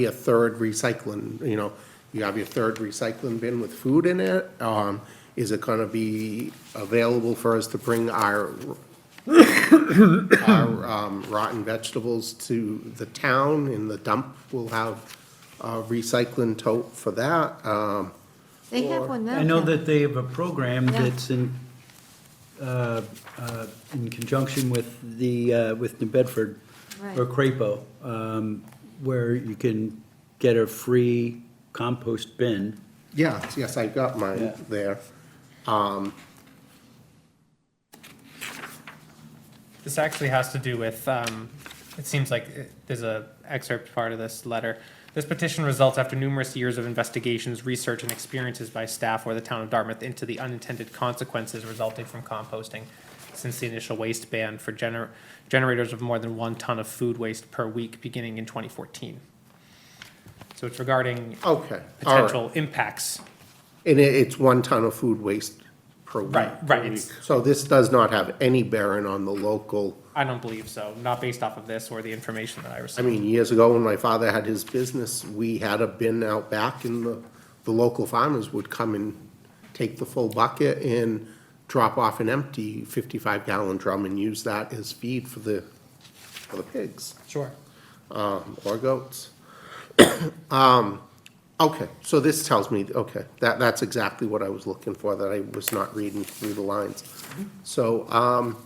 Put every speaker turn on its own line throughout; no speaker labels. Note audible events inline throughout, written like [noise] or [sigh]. be a third recycling, you know, you have your third recycling bin with food in it. Um, is it gonna be available for us to bring our, our um, rotten vegetables to the town in the dump? We'll have a recycling tote for that. Um,
They have one now.
I know
yeah.
that they have a program
Yeah.
that's in, uh, uh, in conjunction with the, uh, with New Bedford, or
Right.
Crapo, um, where you can get a free compost bin.
yeah, yes, I got mine
Yeah.
there.
This actually has to do with, um, it seems like it- there's a excerpt part of this letter. This petition results after numerous years of investigations, research, and experiences by staff or the town of Dartmouth into the unintended consequences resulting from composting. Since the initial waste ban for gener- generators of more than one ton of food waste per week beginning in twenty fourteen. So it's regarding
Okay, all right.
potential impacts.
And it, it's one ton of food waste per week.
Right, right, it's-
So this does not have any bearing on the local.
I don't believe so, not based off of this or the information that I
I
received.
mean, years ago, when my father had his business, we had a bin out back and the, the local farmers would come and take the full bucket and drop off an empty fifty-five gallon drum and use that as feed for the, for the pigs,
Sure.
um, or goats. [coughs] Um, okay, so this tells me, okay, that, that's exactly what I was looking for, that I was not reading through the lines. So, um,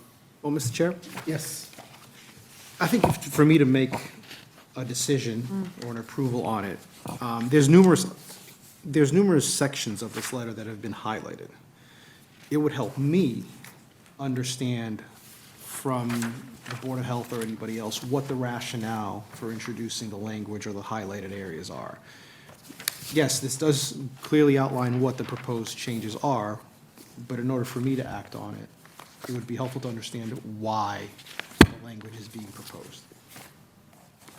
Well, Mr. Chair,
yes,
I think if- for me to make a decision or an approval on it, um, there's numerous, there's numerous sections of this letter that have been highlighted. It would help me understand from the Board of Health or anybody else what the rationale for introducing the language or the highlighted areas are. Yes, this does clearly outline what the proposed changes are, but in order for me to act on it, it would be helpful to understand why the language is being proposed.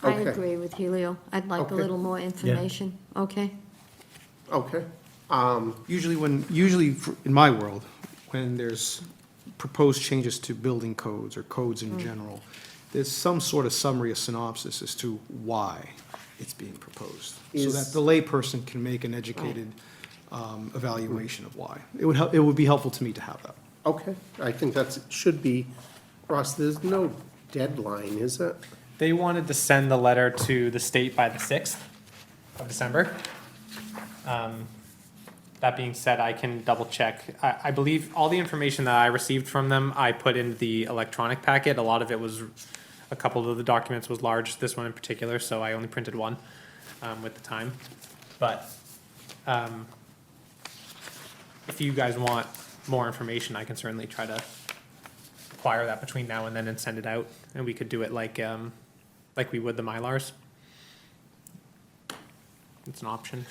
I
Okay.
agree with Helio. I'd like a
Okay.
little more information, okay?
okay. um,
Usually when, usually for- in my world, when there's proposed changes to building codes or codes in general, there's some sort of summary, or synopsis as to why it's being proposed. So that
Is-
the layperson can make an educated um, evaluation of why. It would, hel- it would be helpful to me to have that.
Okay, I think that's, should be, Ross, there's no deadline, is it?
They wanted to send the letter to the state by the 6th of December. Um, That being said, I can double check. I, I believe all the information that I received from them, I put in the electronic packet. A lot of it was, a couple of the documents was large, this one in particular, so I only printed one um, with the time. But um, if you guys want more information, I can certainly try to acquire that between now and then and send it out, and we could do it like, um, like we would the Mylars. It's an option.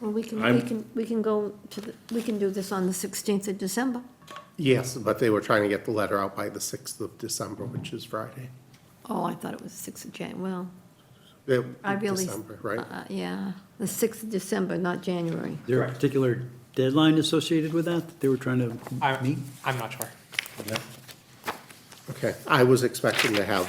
Well, we can, we
I'm-
can, we can go to, the we can do this on the 16th of December.
Yes, but they were trying to get the letter out by the 6th of December, which is Friday.
Oh, I thought it was 6th of Jan, well,
Uh,
I really.
December, right?
uh, Yeah, the 6th of December, not January.
Is there a
Correct.
particular deadline associated with that that they were trying to meet?
I'm, I'm not sure.
Okay, I was expecting to have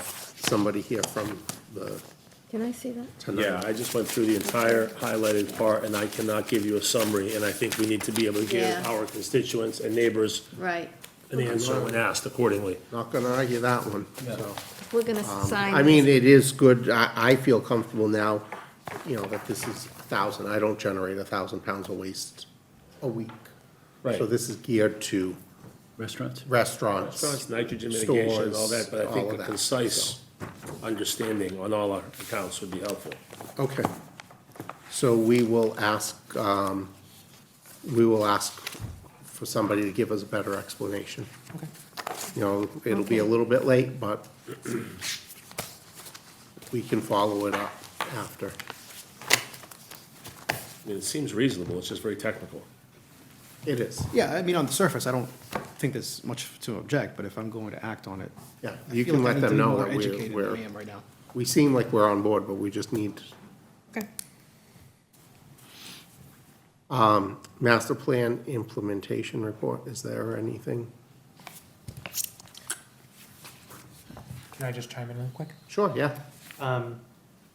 somebody here from the,
Can I see that?
tonight.
Yeah, I just went through the entire highlighted part, and I cannot give you a summary, and I think we need to be able to give
Yeah.
our constituents and neighbors
Right.
an answer when asked accordingly.
Not gonna argue that one, so.
We're gonna sign.
Um, I mean,
this.
it is good, I, I feel comfortable now, you know, that this is a thousand, I don't generate a thousand pounds of waste a week.
Right.
So this is geared to
Restaurants?
restaurants.
Restaurants, nitrogen mitigation, and all
stores,
that, but I think
all
a
of that, so.
concise understanding on all our accounts would be helpful.
Okay. So we will ask, um, we will ask for somebody to give us a better explanation.
Okay.
You know, it'll be a
Okay.
little bit late, but we can follow it up after.
I mean, It seems reasonable, it's just very technical.
It is,
Yeah, I mean, on the surface, I don't think there's much to object, but if I'm going to act on it.
yeah.
I
You
feel
can
like I
let
need to
them
be
know
more
that we're,
educated than I
we're,
am right now.
we seem like we're on board, but we just need
Okay.
Um, master plan implementation report. Is there anything?
Can I just chime in real quick?
Sure, yeah.
Um,